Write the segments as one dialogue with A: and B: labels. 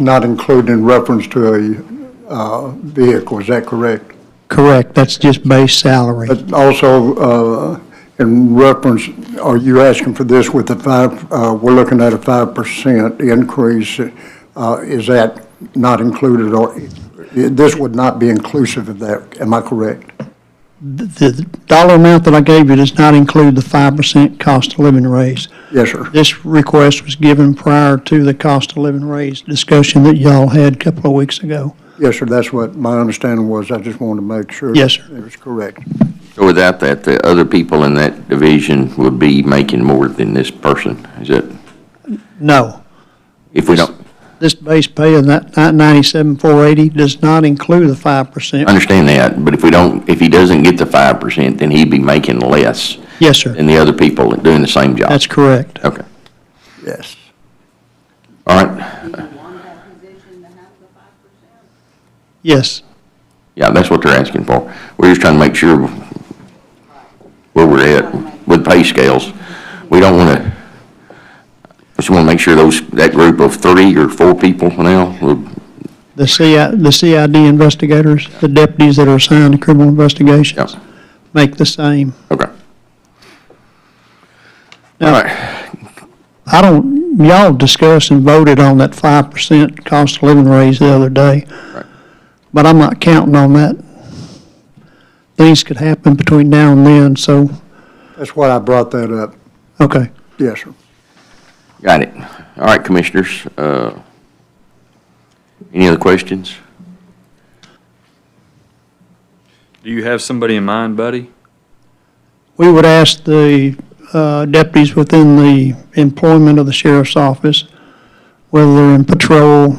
A: not included in reference to a uh, vehicle, is that correct?
B: Correct, that's just base salary.
A: But also, uh, in reference, are you asking for this with the five, uh, we're looking at a 5% increase, uh, is that not included, or, this would not be inclusive of that, am I correct?
B: The the dollar amount that I gave you does not include the 5% cost of living raise.
A: Yes, sir.
B: This request was given prior to the cost of living raise discussion that y'all had a couple of weeks ago.
A: Yes, sir, that's what my understanding was, I just wanted to make sure.
B: Yes, sir.
A: It was correct.
C: So without that, the other people in that division would be making more than this person, is it?
B: No,
C: If we don't,
B: this base pay of that 97,480 does not include the 5%.
C: understand that, but if we don't, if he doesn't get the five percent, then he'd be making less
B: Yes, sir,
C: than the other people doing the same job.
B: that's correct.
C: Okay,
A: Yes.
C: all right,
D: Do you want that position to have the five percent?
B: Yes,
C: yeah, that's what they're asking for. We're just trying to make sure where we're at with pay scales. We don't wanna, just wanna make sure those, that group of three or four people now, will-
B: the CI, the CID investigators, the deputies that are assigned to criminal investigations
C: yeah,
B: make the same.
C: okay. All
B: Now-
C: right,
B: I don't, y'all discussed and voted on that five percent cost of living raise the other day.
C: Right.
B: But I'm not counting on that. Things could happen between now and then, so,
A: That's why I brought that up.
B: okay.
A: Yes, sir.
C: Got it. All right, commissioners, uh, any other questions?
E: Do you have somebody in mind, buddy?
B: We would ask the uh, deputies within the employment of the sheriff's office, whether they're in patrol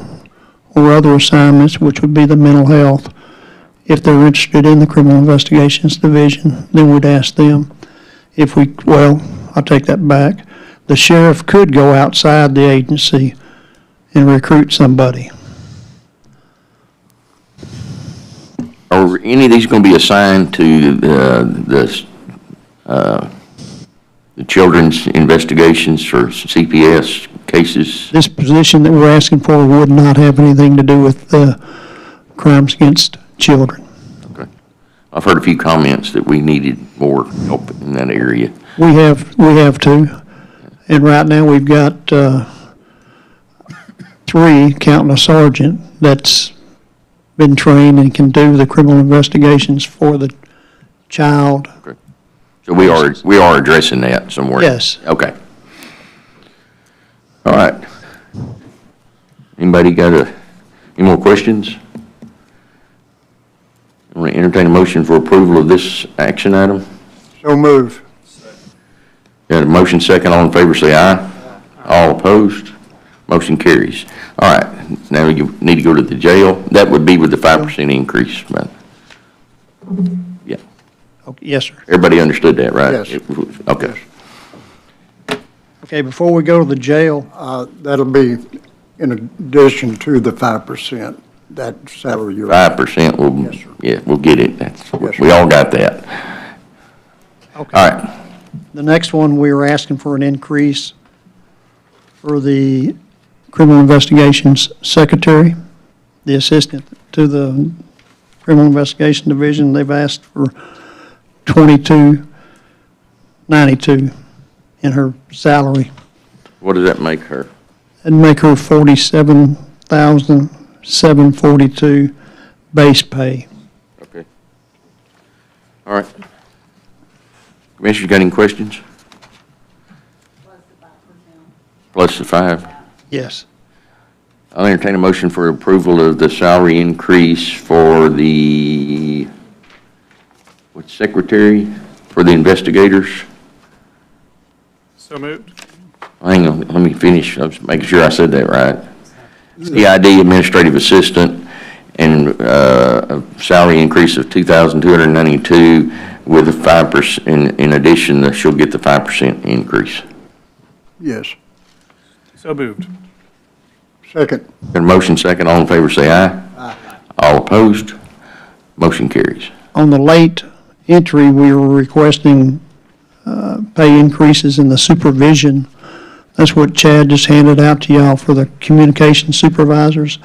B: or other assignments, which would be the mental health, if they're interested in the criminal investigations division, then we'd ask them. If we, well, I'll take that back. The sheriff could go outside the agency and recruit somebody.
C: Are any of these going to be assigned to uh, the, uh, the children's investigations or CPS cases?
B: This position that we're asking for would not have anything to do with uh, crimes against children.
C: I've heard a few comments that we needed more help in that area.
B: We have, we have two, and right now we've got, uh, three, counting a sergeant, that's been trained and can do the criminal investigations for the child.
C: So we are, we are addressing that somewhere.
B: Yes.
C: Okay. All right. Anybody got a, any more questions? I'm going to entertain a motion for approval of this action item.
A: So move.
C: Got a motion second, all in favor, say aye. All opposed, motion carries. All right, now you need to go to the jail. That would be with the five percent increase, but, yeah,
B: Okay, Yes, sir.
C: everybody understood that, right?
A: Yes.
C: Okay.
B: Okay, before we go to the jail,
A: Uh, That'll be in addition to the 5%, that salary you're.
C: Five percent, we'll,
A: Yes, sir.
C: yeah, we'll get it. That's,
A: Yes, sir.
C: we all got that.
B: okay,
C: All right,
B: the next one, we were asking for an increase for the criminal investigations secretary, the assistant to the criminal investigation division, they've asked for twenty-two ninety-two in her salary.
C: what does that make her?
B: That'd make her forty-seven thousand seven forty-two base pay.
C: Okay. All right. Commissioners, got any questions? Plus the five.
B: Yes.
C: I'll entertain a motion for approval of the salary increase for the, what, secretary, for the investigators?
F: So moved.
C: Hang on, let me finish, I'm just making sure I said that right. CID administrative assistant and uh, a salary increase of 2,292 with a 5%, in- in addition, that she'll get the 5% increase.
A: Yes.
F: So moved.
A: Second.
C: Got a motion second, all in favor say aye. All opposed, motion carries.
B: On the late entry, we were requesting uh, pay increases in the supervision That's what Chad just handed out to y'all for the communication supervisors.